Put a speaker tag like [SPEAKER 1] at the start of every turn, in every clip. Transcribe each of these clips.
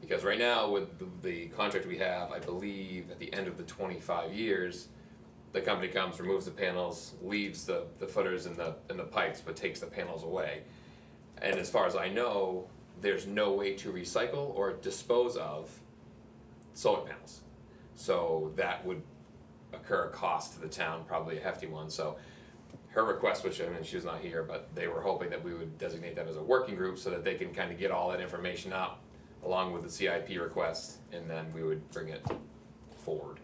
[SPEAKER 1] Because right now, with the, the contract we have, I believe at the end of the twenty-five years, the company comes, removes the panels, leaves the, the footers and the, and the pipes, but takes the panels away. And as far as I know, there's no way to recycle or dispose of solar panels. So that would occur a cost to the town, probably a hefty one, so her request, which, I mean, she was not here, but they were hoping that we would designate them as a working group so that they can kind of get all that information up along with the CIP request, and then we would bring it forward.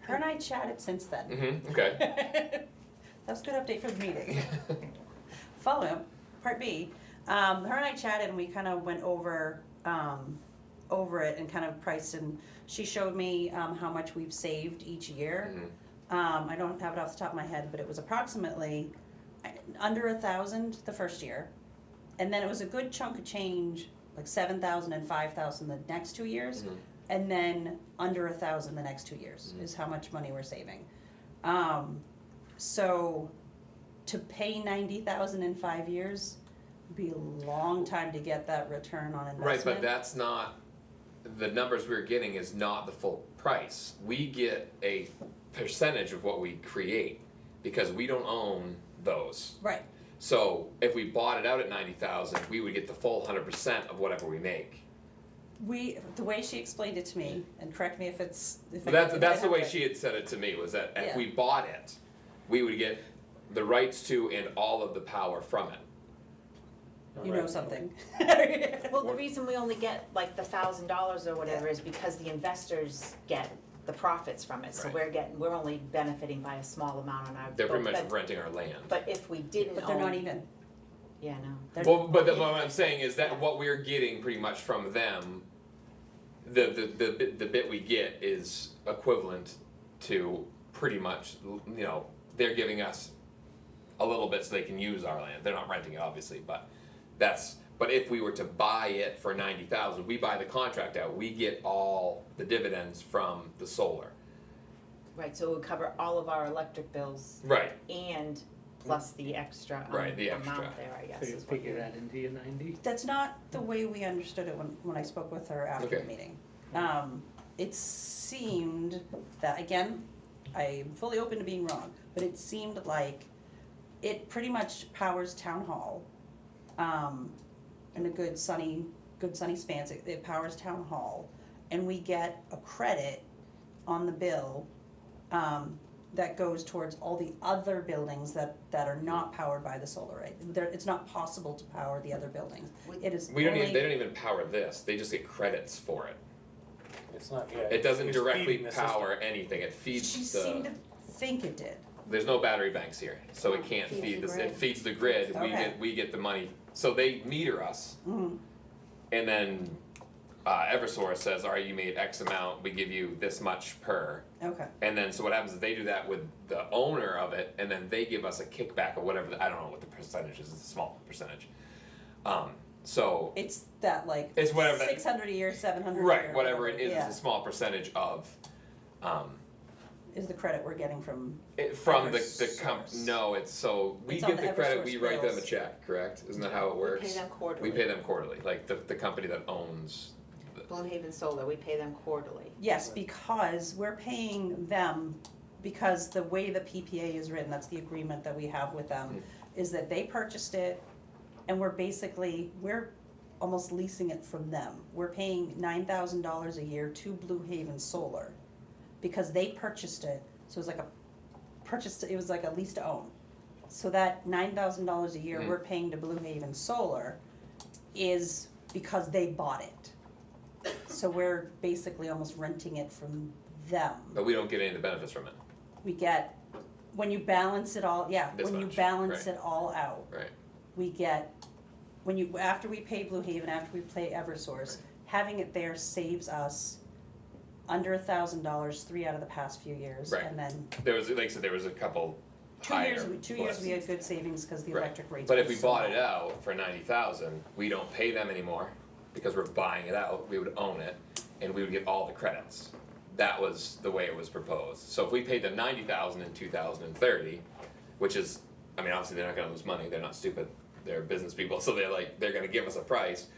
[SPEAKER 2] Her and I chatted since then.
[SPEAKER 1] Mm-hmm, okay.
[SPEAKER 2] That was a good update for the meeting. Follow up, part B. Um, her and I chatted and we kind of went over, um, over it and kind of priced and she showed me, um, how much we've saved each year.
[SPEAKER 1] Mhm.
[SPEAKER 2] Um, I don't have it off the top of my head, but it was approximately uh, under a thousand the first year. And then it was a good chunk of change, like seven thousand and five thousand the next two years.
[SPEAKER 1] Mhm.
[SPEAKER 2] And then under a thousand the next two years
[SPEAKER 1] Mm-hmm.
[SPEAKER 2] is how much money we're saving. Um, so to pay ninety thousand in five years would be a long time to get that return on investment.
[SPEAKER 1] Right, but that's not, the numbers we're getting is not the full price. We get a percentage of what we create because we don't own those.
[SPEAKER 2] Right,
[SPEAKER 1] So if we bought it out at ninety thousand, we would get the full hundred percent of whatever we make.
[SPEAKER 2] we, the way she explained it to me, and correct me if it's, if I.
[SPEAKER 1] That's
[SPEAKER 2] if I
[SPEAKER 1] that's the
[SPEAKER 2] have
[SPEAKER 1] way
[SPEAKER 2] it.
[SPEAKER 1] she had said it to me was that if
[SPEAKER 2] Yeah.
[SPEAKER 1] we bought it, we would get the rights to and all of the power from it.
[SPEAKER 2] You know something.
[SPEAKER 3] Well, the reason we only get like the thousand dollars or whatever is because the investors get the profits from it, so
[SPEAKER 1] Right.
[SPEAKER 3] we're getting, we're only benefiting by a small amount on our.
[SPEAKER 1] They're pretty
[SPEAKER 3] but-
[SPEAKER 1] much
[SPEAKER 3] but-
[SPEAKER 1] renting our land.
[SPEAKER 3] But if we didn't
[SPEAKER 2] But they're not
[SPEAKER 3] own-
[SPEAKER 2] even,
[SPEAKER 3] Yeah, no.
[SPEAKER 2] they're,
[SPEAKER 1] Well, but the, what I'm saying is that what we're getting pretty much from them, the the the bit, the bit we get is equivalent to pretty much you know they're giving us a little bit so they can use our land. They're not renting it obviously, but that's but if we were to buy it for ninety thousand, we buy the contract out, we get all the dividends from the solar.
[SPEAKER 3] Right, so it would cover all of our electric bills
[SPEAKER 1] Right.
[SPEAKER 3] and plus the extra um,
[SPEAKER 1] Right, the
[SPEAKER 3] amount
[SPEAKER 1] extra.
[SPEAKER 3] there, I guess,
[SPEAKER 4] So you
[SPEAKER 3] is what
[SPEAKER 4] figure that into your ninety?
[SPEAKER 2] that's not the way we understood it when, when I spoke with her after the
[SPEAKER 1] Okay.
[SPEAKER 2] meeting. Um, it seemed that, again, I'm fully open to being wrong, but it seemed like it pretty much powers town hall. Um, in a good sunny, good sunny spans, it, it powers town hall, and we get a credit on the bill, um, that goes towards all the other buildings that, that are not powered by the solar array. There, it's not possible to power the other buildings, it is
[SPEAKER 1] We don't even they
[SPEAKER 2] only,
[SPEAKER 1] don't even power this. They just get credits for it.
[SPEAKER 4] It's not, yeah.
[SPEAKER 1] It doesn't
[SPEAKER 4] it's
[SPEAKER 1] directly
[SPEAKER 4] feeding the system.
[SPEAKER 1] power anything. It feeds
[SPEAKER 2] she
[SPEAKER 1] the
[SPEAKER 2] seemed to think it did,
[SPEAKER 1] there's no battery banks here, so
[SPEAKER 2] Oh,
[SPEAKER 1] it can't
[SPEAKER 3] Feeds
[SPEAKER 1] feed
[SPEAKER 3] the
[SPEAKER 1] this, it
[SPEAKER 3] grid.
[SPEAKER 1] feeds the grid, we
[SPEAKER 2] Okay.
[SPEAKER 1] get, we get the money, so they meter us.
[SPEAKER 2] Mhm.
[SPEAKER 1] And then, uh, Eversource says, alright, you made X amount, we give you this much per.
[SPEAKER 2] okay,
[SPEAKER 1] And then, so what happens is they do that with the owner of it, and then they give us a kickback or whatever, the- I don't know what the percentage is, it's a small percentage. Um, so,
[SPEAKER 2] it's that like
[SPEAKER 1] It's whatever that-
[SPEAKER 2] six hundred a year, seven hundred a year.
[SPEAKER 1] right, whatever it is,
[SPEAKER 2] yeah,
[SPEAKER 1] it's a small percentage of, um,
[SPEAKER 2] Is the credit we're getting from,
[SPEAKER 1] It, from the, the comp,
[SPEAKER 2] Eversource.
[SPEAKER 1] no, it's so, we
[SPEAKER 2] It's on
[SPEAKER 1] get
[SPEAKER 2] the
[SPEAKER 1] the credit, we
[SPEAKER 2] Eversource
[SPEAKER 1] write them a
[SPEAKER 2] bills.
[SPEAKER 1] check, correct? Isn't that how it
[SPEAKER 3] we
[SPEAKER 1] works?
[SPEAKER 3] pay them quarterly.
[SPEAKER 1] We pay them quarterly, like the, the company that owns,
[SPEAKER 3] Blue Haven Solar, we pay them quarterly.
[SPEAKER 2] yes, because we're paying them, because the way the PPA is written, that's the agreement that we have with them, is that they purchased it, and we're basically, we're almost leasing it from them. We're paying nine thousand dollars a year to Blue Haven Solar, because they purchased it, so it was like a purchased, it was like a lease to own. So that nine thousand dollars a year
[SPEAKER 1] Mhm.
[SPEAKER 2] we're paying to Blue Haven Solar is because they bought it. So we're basically almost renting it from them.
[SPEAKER 1] but we don't get any of the benefits from it,
[SPEAKER 2] We get, when you balance it all, yeah,
[SPEAKER 1] This
[SPEAKER 2] when you
[SPEAKER 1] much,
[SPEAKER 2] balance
[SPEAKER 1] right.
[SPEAKER 2] it all out,
[SPEAKER 1] right?
[SPEAKER 2] we get, when you, after we pay Blue Haven, after we pay Eversource, having it there saves us under a thousand dollars, three out of the past few years,
[SPEAKER 1] Right.
[SPEAKER 2] and then
[SPEAKER 1] There was, like I said, there was a couple
[SPEAKER 2] two
[SPEAKER 1] higher.
[SPEAKER 2] years, we- two years we had good savings because the
[SPEAKER 1] Right.
[SPEAKER 2] electric rates
[SPEAKER 1] But
[SPEAKER 2] were
[SPEAKER 1] if we
[SPEAKER 2] so
[SPEAKER 1] bought
[SPEAKER 2] low.
[SPEAKER 1] it out for ninety thousand, we don't pay them anymore, because we're buying it out, we would own it, and we would get all the credits. That was the way it was proposed, so if we paid them ninety thousand in two thousand and thirty, which is, I mean, obviously, they're not gonna lose money, they're not stupid, they're business people, so they're like, they're gonna give us a price.